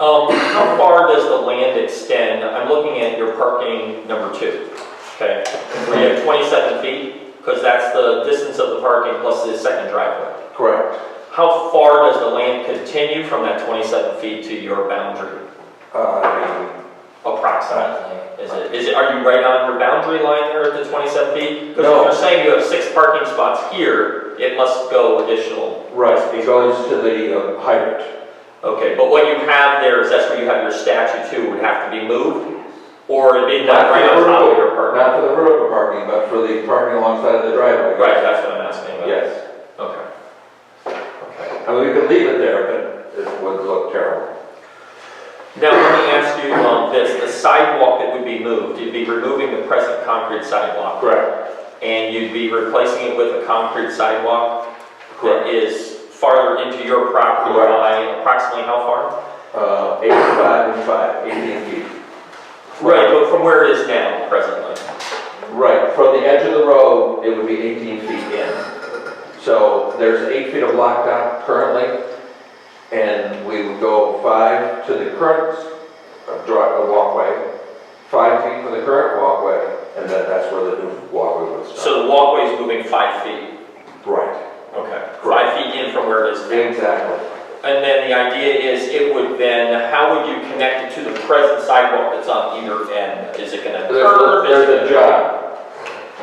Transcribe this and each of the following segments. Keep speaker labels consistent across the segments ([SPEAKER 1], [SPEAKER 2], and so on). [SPEAKER 1] Um, how far does the land extend? I'm looking at your parking number two, okay? Where you have 27 feet, because that's the distance of the parking plus the second driveway.
[SPEAKER 2] Correct.
[SPEAKER 1] How far does the land continue from that 27 feet to your boundary
[SPEAKER 2] Uh,
[SPEAKER 1] approximately? Is it, is it, are you right on your boundary line there at the 27 feet? Because
[SPEAKER 2] No.
[SPEAKER 1] if you're saying you have six parking spots here, it must go additional.
[SPEAKER 2] Right, it goes to the uh, hydrant.
[SPEAKER 1] Okay, but what you have there is that's where you have your statue too, would have to be moved? Or it'd be
[SPEAKER 2] Not
[SPEAKER 1] done
[SPEAKER 2] for
[SPEAKER 1] right
[SPEAKER 2] the
[SPEAKER 1] on top of your
[SPEAKER 2] vertical,
[SPEAKER 1] parking?
[SPEAKER 2] not for the vertical parking, but for the parking alongside of the driveway.
[SPEAKER 1] Right, that's what I'm asking about.
[SPEAKER 2] Yes.
[SPEAKER 1] Okay. Okay.
[SPEAKER 2] I mean, we could leave it there, but it would look terrible.
[SPEAKER 1] Now, let me ask you on this, the sidewalk that would be moved, you'd be removing the present concrete sidewalk,
[SPEAKER 2] Correct.
[SPEAKER 1] and you'd be replacing it with a concrete sidewalk that
[SPEAKER 2] Correct.
[SPEAKER 1] is farther into your property
[SPEAKER 2] Correct.
[SPEAKER 1] by approximately how far?
[SPEAKER 2] Uh, Eighty-five and five, eighteen feet.
[SPEAKER 1] Right, but from where it is now presently?
[SPEAKER 2] Right, from the edge of the road, it would be eighteen feet in. So there's eight feet of blacktop currently, and we would go five to the current uh, drive, the walkway, five feet from the current walkway, and then that's where the new walkway would start.
[SPEAKER 1] So the walkway is moving five feet,
[SPEAKER 2] Right,
[SPEAKER 1] okay, five feet in from where it is now.
[SPEAKER 2] exactly.
[SPEAKER 1] And then the idea is it would then, how would you connect it to the present sidewalk that's on either end? Is it gonna
[SPEAKER 2] There's, a-
[SPEAKER 1] curve? Is
[SPEAKER 2] there's a
[SPEAKER 1] it gonna-
[SPEAKER 2] jog.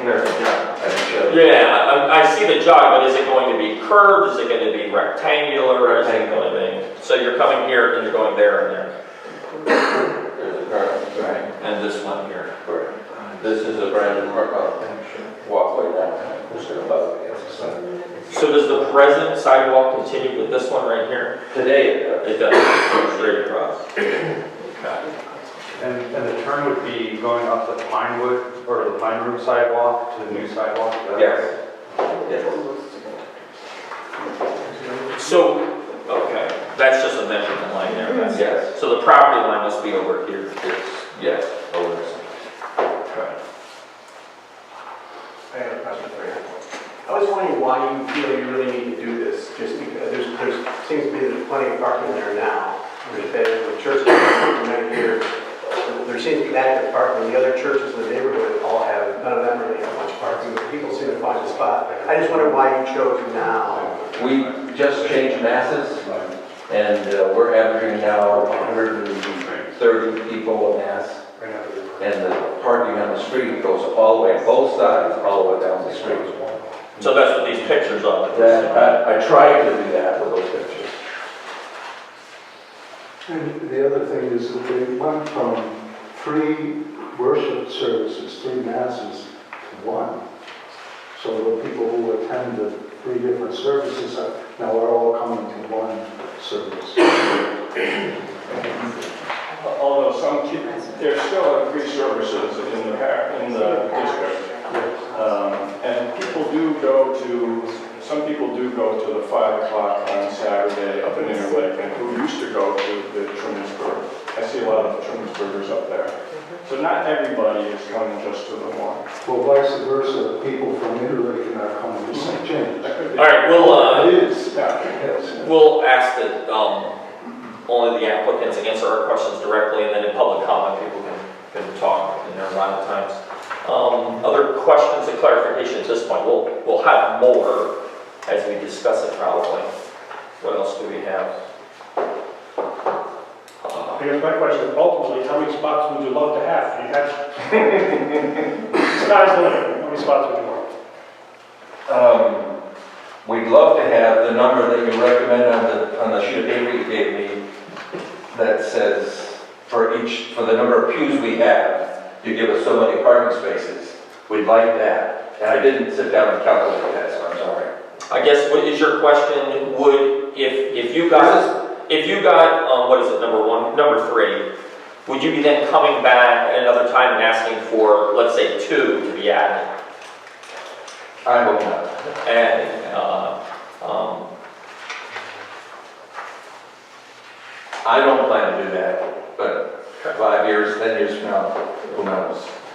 [SPEAKER 2] There's a jog. I can show you.
[SPEAKER 1] Yeah, I, I see the jog, but is it going to be curved? Is it gonna be rectangular? Or Is it gonna be, so you're coming here and you're going there and there,
[SPEAKER 2] There's a current, right.
[SPEAKER 1] and this one here.
[SPEAKER 2] This is a brand new mark- uh, walkway now, just above it.
[SPEAKER 1] So does the present sidewalk continue with this one right here?
[SPEAKER 2] Today, uh,
[SPEAKER 1] It does, It goes straight across. Okay.
[SPEAKER 3] And, and the turn would be going up the Pinewood, or the Pine Room sidewalk to the new sidewalk? is that-
[SPEAKER 2] Yes. Yes.
[SPEAKER 1] So, okay, that's just a measurement line there, that's it.
[SPEAKER 2] Yes.
[SPEAKER 1] So the property line must be over here.
[SPEAKER 2] Mm-hmm. Yes. Over.
[SPEAKER 1] Okay.
[SPEAKER 4] I got a question for you. I was wondering why you feel you really need to do this, just because, there's, there's, seems to be there's plenty of parking there now. There's been the churches right here, there seems to be active parking, the other churches in the neighborhood all have, none of them really have much parking, but people seem to find a spot. I just wonder why you chose now.
[SPEAKER 2] We just changed masses, and uh, we're averaging now 130 people a mass. And the parking on the street goes all the way, both sides, all the way down the street.
[SPEAKER 1] So that's what these pictures are.
[SPEAKER 2] That, I, I tried to do that with those pictures.
[SPEAKER 5] And the other thing is that they went from three worship services, three masses, to one. So the people who attend the three different services are, now are all coming to one service.
[SPEAKER 6] Although some, ki- there's still like three services in the, par- in the district. Um, And people do go to, some people do go to the five o'clock on Saturday up in Interlake, and who used to go to the Trumansburg. I see a lot of Trumansburgers up there. So not everybody is coming just to the one.
[SPEAKER 5] Well, vice versa, people from Italy are coming to St. James.
[SPEAKER 6] That could be-
[SPEAKER 1] All right, we'll, uh,
[SPEAKER 5] It is,
[SPEAKER 6] Yeah.
[SPEAKER 5] yes.
[SPEAKER 1] we'll ask that, um, only the applicants answer our questions directly, and then in public comment, people can, can talk in their allotted times. Um, other questions and clarification at this point, we'll, we'll have more as we discuss it probably. What else do we have? Uh,
[SPEAKER 7] I guess my question, ultimately, how many spots would you love to have? You have, sky's the limit, how many spots would you want?
[SPEAKER 2] Um, We'd love to have the number that you recommend on the, on the sheet of paper you gave me that says for each, for the number of pews we have, you give us so many parking spaces. We'd like that. And I didn't sit down and calculate that, so I'm sorry.
[SPEAKER 1] I guess, what is your question, would, if, if you guys
[SPEAKER 2] This is-
[SPEAKER 1] If you got, um, what is it, number one, number three, would you be then coming back at another time and asking for, let's say, two to be added?
[SPEAKER 2] I hope not.
[SPEAKER 1] And, uh, um,
[SPEAKER 2] I don't plan to do that, but five years, 10 years from now, who knows?
[SPEAKER 1] uh,